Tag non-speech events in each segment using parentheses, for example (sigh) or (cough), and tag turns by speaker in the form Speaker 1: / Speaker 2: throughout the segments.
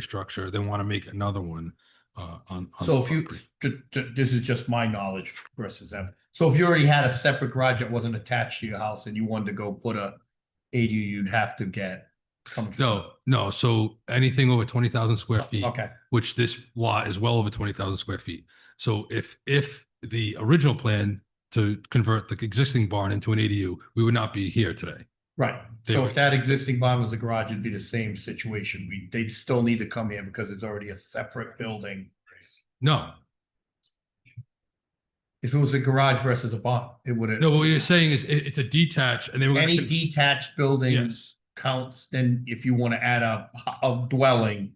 Speaker 1: structure, they want to make another one, uh, on. on
Speaker 2: So
Speaker 1: the
Speaker 2: if you,
Speaker 1: property.
Speaker 2: ju- ju- this is just my knowledge versus them. So if you already had a separate garage that wasn't attached to your house and you wanted to go put a ADU, you'd have to get. come from-
Speaker 1: No, no, so anything over twenty thousand square feet,
Speaker 2: Oh, Okay,
Speaker 1: which this lot is well over twenty thousand square feet. So if, if the original plan to convert the existing barn into an ADU, we would not be here today.
Speaker 2: right.
Speaker 1: They
Speaker 2: So
Speaker 1: would-
Speaker 2: if that existing barn was a garage, it'd be the same situation. We, they'd still need to come here because it's already a separate building.
Speaker 1: No,
Speaker 2: If it was a garage versus a barn, it would have.
Speaker 1: no, what you're saying is it, it's a detached and they were. gonna
Speaker 2: Any
Speaker 1: con-
Speaker 2: detached building
Speaker 1: Yes,
Speaker 2: counts, then if you want to add a, a dwelling.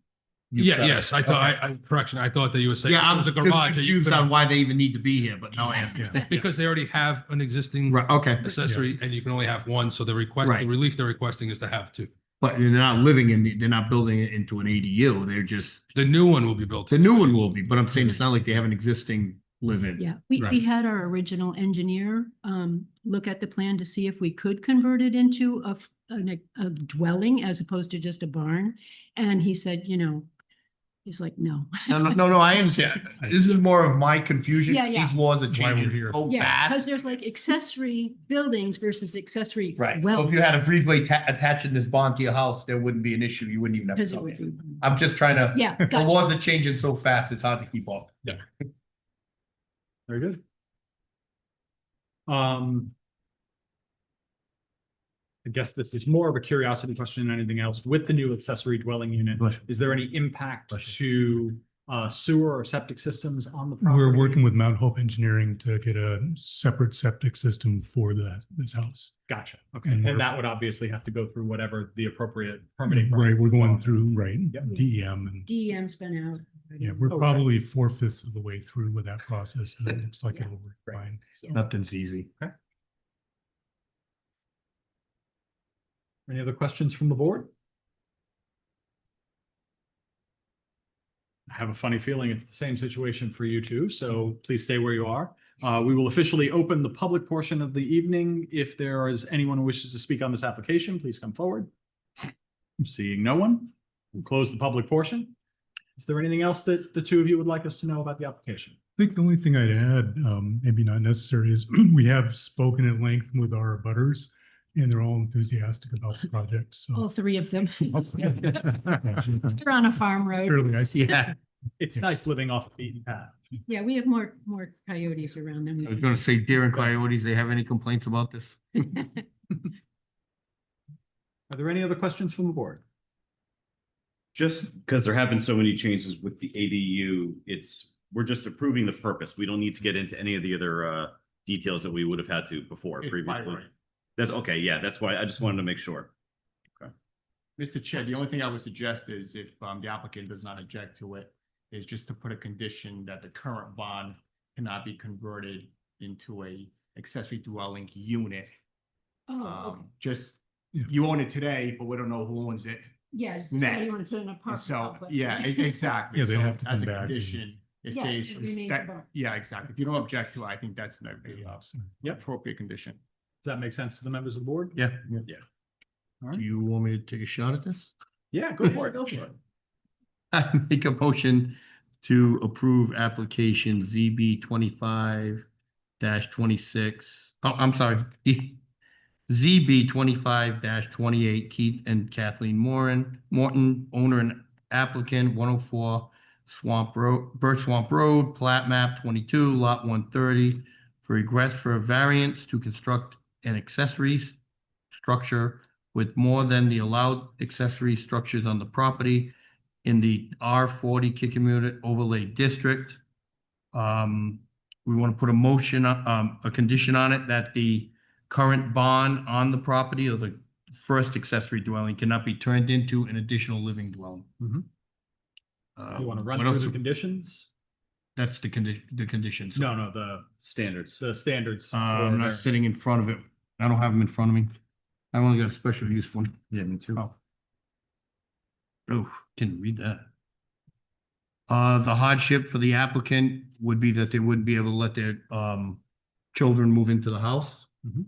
Speaker 2: you've
Speaker 1: yeah,
Speaker 2: got-
Speaker 1: yes, I thought,
Speaker 2: Okay.
Speaker 1: I, I, correction, I thought that you were saying.
Speaker 2: Yeah,
Speaker 1: it
Speaker 2: I'm
Speaker 1: was a
Speaker 2: just
Speaker 1: garage that you
Speaker 2: confused
Speaker 1: couldn't-
Speaker 2: on why they even need to be here, but now I
Speaker 1: Yeah,
Speaker 2: understand.
Speaker 1: (laughs) Because they already have an existing.
Speaker 2: Right, okay,
Speaker 1: accessory and you can only have one, so the request, the
Speaker 2: Right.
Speaker 1: relief they're requesting is to have two.
Speaker 2: but they're not living in, the- they're not building it into an ADU, they're just,
Speaker 1: The new one will be built.
Speaker 2: the new one will be, but I'm saying it's not like they have an existing live-in.
Speaker 3: Yeah, we,
Speaker 1: Right.
Speaker 3: we had our original engineer, um, look at the plan to see if we could convert it into a, f- an e- a dwelling as opposed to just a barn. And he said, you know, he's like, no.
Speaker 2: No, no, no, no, I
Speaker 3: (laughs)
Speaker 2: understand, this is more of my confusion,
Speaker 3: Yeah, yeah.
Speaker 2: these laws are changing
Speaker 1: here.
Speaker 2: so
Speaker 3: Yeah, because
Speaker 2: bad.
Speaker 3: there's like accessory buildings versus accessory.
Speaker 2: Right, so
Speaker 3: Well,
Speaker 2: if you had a breezeway ta- attaching this bond to your house, there wouldn't be an issue, you wouldn't even have.
Speaker 3: because
Speaker 2: to
Speaker 3: it
Speaker 2: come
Speaker 3: would
Speaker 2: here.
Speaker 3: be,
Speaker 2: I'm just trying to,
Speaker 3: yeah,
Speaker 2: Uh, (laughs) the
Speaker 3: gotcha.
Speaker 2: laws are changing so fast, it's hard to keep up.
Speaker 4: Very good. Um. I guess this is more of a curiosity question than anything else. With the new accessory dwelling unit, is there any impact to uh sewer or septic systems on the property?
Speaker 5: We're working with Mount Hope Engineering to get a separate septic system for the, this house.
Speaker 4: Gotcha, okay.
Speaker 5: And
Speaker 4: And
Speaker 5: we're-
Speaker 4: that would obviously have to go through whatever the appropriate permitting.
Speaker 5: Right, we're going through, right,
Speaker 4: Yep. Oh,
Speaker 5: DEM and,
Speaker 3: DEM's been out.
Speaker 5: yeah, we're
Speaker 4: Okay.
Speaker 5: probably four fifths of the way through with that process and it looks like it'll work
Speaker 4: Right.
Speaker 5: fine.
Speaker 2: Nothing's easy.
Speaker 4: Any other questions from the board? I have a funny feeling it's the same situation for you two, so please stay where you are. Uh, we will officially open the public portion of the evening. If there is anyone who wishes to speak on this application, please come forward. I'm Seeing no one, we'll close the public portion. Is there anything else that the two of you would like us to know about the application?
Speaker 5: I think the only thing I'd add, um, maybe not necessary, is (clears throat) we have spoken at length with our butters and they're all enthusiastic about the project,
Speaker 3: All
Speaker 2: Oh.
Speaker 4: Oh.
Speaker 5: so.
Speaker 3: three of
Speaker 2: (laughs)
Speaker 3: them. (laughs) They're on a farm road.
Speaker 5: (laughs) Clearly,
Speaker 4: (laughs)
Speaker 5: I see.
Speaker 4: It's nice living off the beaten path.
Speaker 3: Yeah, we have more, more coyotes around
Speaker 2: I was
Speaker 3: them.
Speaker 2: gonna say deer and coyotes, they have any complaints about this?
Speaker 4: Are there any other questions from the board?
Speaker 6: Just because there have been so many changes with the ADU, it's, we're just approving the purpose. We don't need to get into any of the other uh details that we would have had to before previously. That's okay, yeah, that's why I just wanted to make sure.
Speaker 7: Mr. Chair, the only thing I would suggest is if um, the applicant does not object to it, is just to put a condition that the current bond cannot be converted into a accessory dwelling unit.
Speaker 3: (laughs) Oh, okay.
Speaker 7: Um, Just,
Speaker 5: Yeah.
Speaker 7: you own it today, but we don't know who owns it.
Speaker 3: Yeah. so you
Speaker 7: next.
Speaker 3: want to put an
Speaker 7: And
Speaker 3: apartment
Speaker 7: so,
Speaker 3: complex. (laughs)
Speaker 7: yeah, e-
Speaker 2: (laughs)
Speaker 7: exactly.
Speaker 5: Yeah, they'd
Speaker 7: So
Speaker 5: have to
Speaker 7: As
Speaker 5: come
Speaker 7: a
Speaker 5: back and-
Speaker 7: condition, it
Speaker 3: Yeah,
Speaker 7: stays,
Speaker 3: it remains
Speaker 7: that-
Speaker 3: a bond.
Speaker 7: yeah, exactly. If you don't object to it, I think that's an appropriate condition.
Speaker 4: Does that make sense to the members of the board?
Speaker 2: Yeah.
Speaker 6: Yeah.
Speaker 2: Do
Speaker 4: All right.
Speaker 2: you want me to take a shot at this?
Speaker 4: Yeah, (laughs) go for it.
Speaker 3: Go for it.
Speaker 2: (laughs) I make a motion to approve application ZB twenty-five dash twenty-six. Oh, I'm sorry. (laughs) ZB twenty-five dash twenty-eight Keith and Kathleen Moran, Morton, owner and applicant, one oh four Swamp Road, Birch Swamp Road, plat map twenty-two, lot one thirty, for request for a variance to construct an accessory s- structure with more than the allowed accessory structures on the property in the R forty Kikemewett overlay district. Um, we want to put a motion, uh, um, a condition on it that the current bond on the property or the first accessory dwelling cannot be turned into an additional living dwelling.
Speaker 4: Mhm.
Speaker 2: Uh,
Speaker 4: You want to run
Speaker 2: what
Speaker 4: through
Speaker 2: else?
Speaker 4: the conditions?
Speaker 2: That's the condi, the conditions.
Speaker 4: No, no, the,
Speaker 6: Standards.
Speaker 4: the standards.
Speaker 2: Uh,
Speaker 4: for
Speaker 2: I'm not
Speaker 4: their-
Speaker 2: sitting in front of it. I don't have them in front of me. I only got a special use one.
Speaker 6: Yeah, me too.
Speaker 2: Oh. Oh, didn't read that. Uh, the hardship for the applicant would be that they wouldn't be able to let their, um, children move into the
Speaker 6: Mm-hmm.
Speaker 2: house.
Speaker 4: Mhm.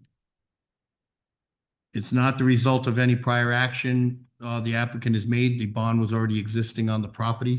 Speaker 2: It's not the result of any prior action uh, the applicant has made. The bond was already existing on the property.